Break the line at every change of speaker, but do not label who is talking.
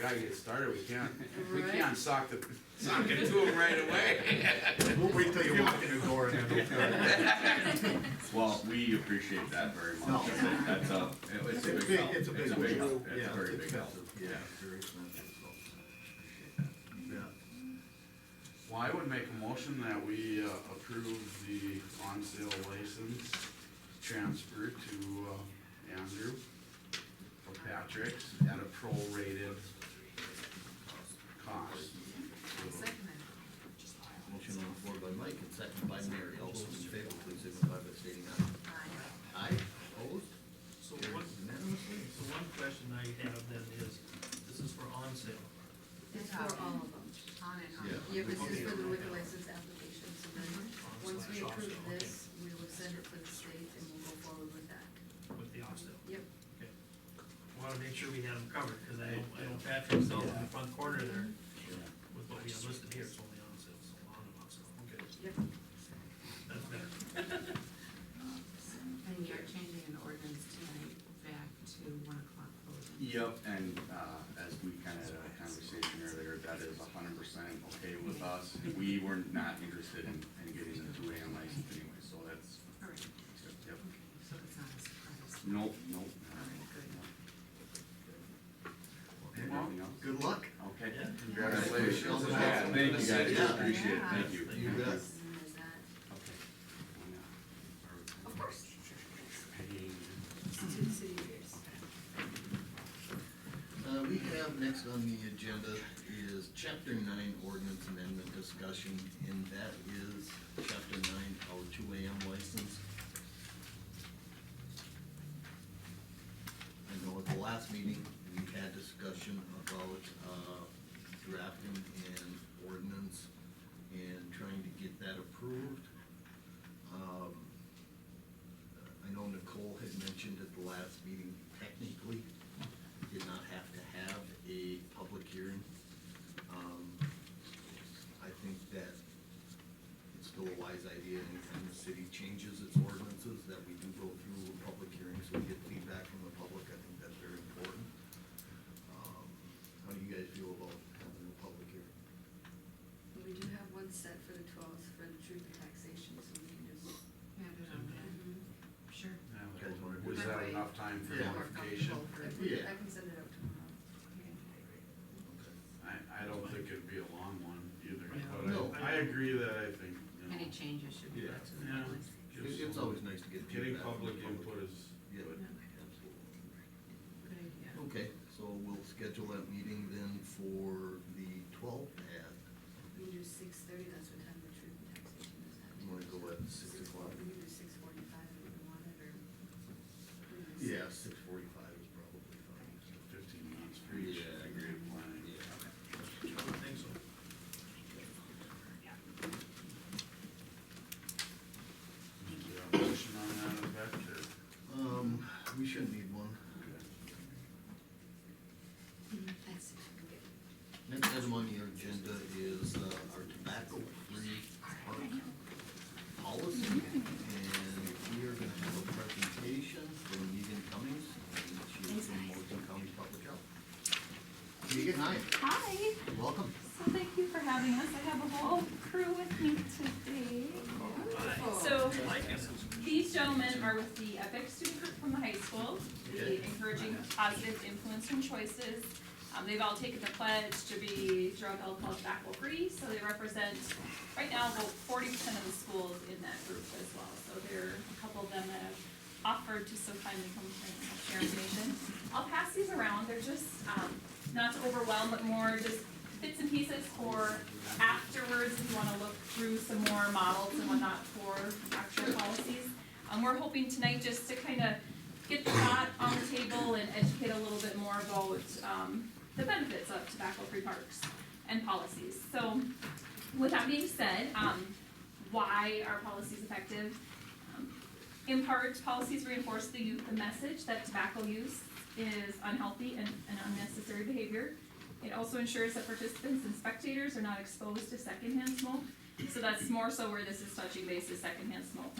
gotta get started, we can't, we
Right.
can't sock the, sock it to him right away.
We'll wait till you walk in the door and then we'll.
Well, we appreciate that very
No.
much. I think That's a, it's a
It's
big
big,
help.
it's a big help.
help. It's
Yeah,
a very
it's
big help.
expensive.
Yeah.
Very expensive, so, yeah.
Well, I would make a motion that we uh, approve the on sale license transfer to uh, Andrew for Patrick's at a prorated cost.
Second it.
Motion on the floor by Mike and second by Mary, all those in favor, please signify by stating aye.
Aye.
Aye, opposed,
So
carried
one,
unanimously.
so one question I have then is, this is for on sale.
It's for all of them, on and on.
Yeah.
Yeah, this is for the liquor license application, so then, once we approve this, we will send it to the state and we'll go forward with that.
With the on sale.
Yep,
Okay. Wanna make sure we had them covered, cause I don't, I don't Patrick sells in the front corner there with what we have listed here, it's only on sale, so on and on sale. Okay,
yep.
that's better.
And you're changing an ordinance tonight back to one o'clock closing.
Yep, and uh, as we kind of had a conversation earlier, that is hundred percent okay with us. We were not interested in, in getting the two AM license anyway, so that's,
All right,
yep.
okay, so it's not a surprise.
Nope, nope.
Andrew,
Anything else?
Good luck.
Okay.
Yeah.
Congratulations.
Yeah.
Yeah, Thank you guys,
Yeah.
appreciate it,
Yeah.
thank you.
You bet.
And then there's that.
Okay.
Of course.
It's two city years.
Uh, we have next on the agenda is chapter nine ordinance amendment discussion, and that is chapter nine, our two AM license. I know at the last meeting, we had discussion about, uh, drafting an ordinance and trying to get that approved. Um, I know Nicole had mentioned at the last meeting, technically, did not have to have a public hearing. Um, I think that it's still a wise idea anytime the city changes its ordinances, that we do go through a public hearing, so we get feedback from the public, I think that's very important. Um, How do you guys feel about having a public hearing?
We do have one set for the twelfth for the truth and taxation, so we can do.
Yeah, I don't know.
Mm-hmm.
Sure.
Was that enough time for
Yeah.
notification?
I can-
Yeah.
I can send it out tomorrow.
I, I don't think it'd be a long one either,
No.
but I, I agree that I think, you know.
Any changes should be brought to the
Yeah.
notice.
It- It's always nice to get
Getting
feedback. from the
public input is
Yeah,
good.
absolutely.
Good idea.
Okay, so we'll schedule that meeting then for the twelfth at,
We can do six thirty, that's what time the truth and taxation is at.
you wanna go at six o'clock?
We can do six forty-five if we want it, or. we can do six.
Yeah, six forty-five is probably fine.
Fifteen minutes for each,
Yeah, I
agree with planning.
I would think so.
Do you have a motion on that, Vector?
Um, we shouldn't need one.
Mhm, That's six, okay.
Next item on your agenda is uh, our tobacco-free park policy. And we are gonna have a presentation from Megan Cummings, and she is from Morgan County Public Health. Megan, hi,
Hi,
welcome.
so thank you for having us. I have a whole crew with me today. So these gentlemen are with the EPIC student group from the high school, the
Okay.
encouraging positive influence from choices. Um, they've all taken the pledge to be drug, alcohol, tobacco free, so they represent, right now, about forty percent of the schools in that group as well. So there are a couple of them that have offered to so kindly come and help share information. I'll pass these around, they're just, um, not to overwhelm, but more just bits and pieces for afterwards, if you wanna look through some more models and whatnot for actual policies. Um, we're hoping tonight just to kinda get the thought on the table and educate a little bit more about, um, the benefits of tobacco-free parks and policies. So, with that being said, um, why are policies effective? Um, In part, policies reinforce the youth, the message that tobacco use is unhealthy and, and unnecessary behavior. It also ensures that participants and spectators are not exposed to secondhand smoke. So that's more so where this is touching base is secondhand smoke.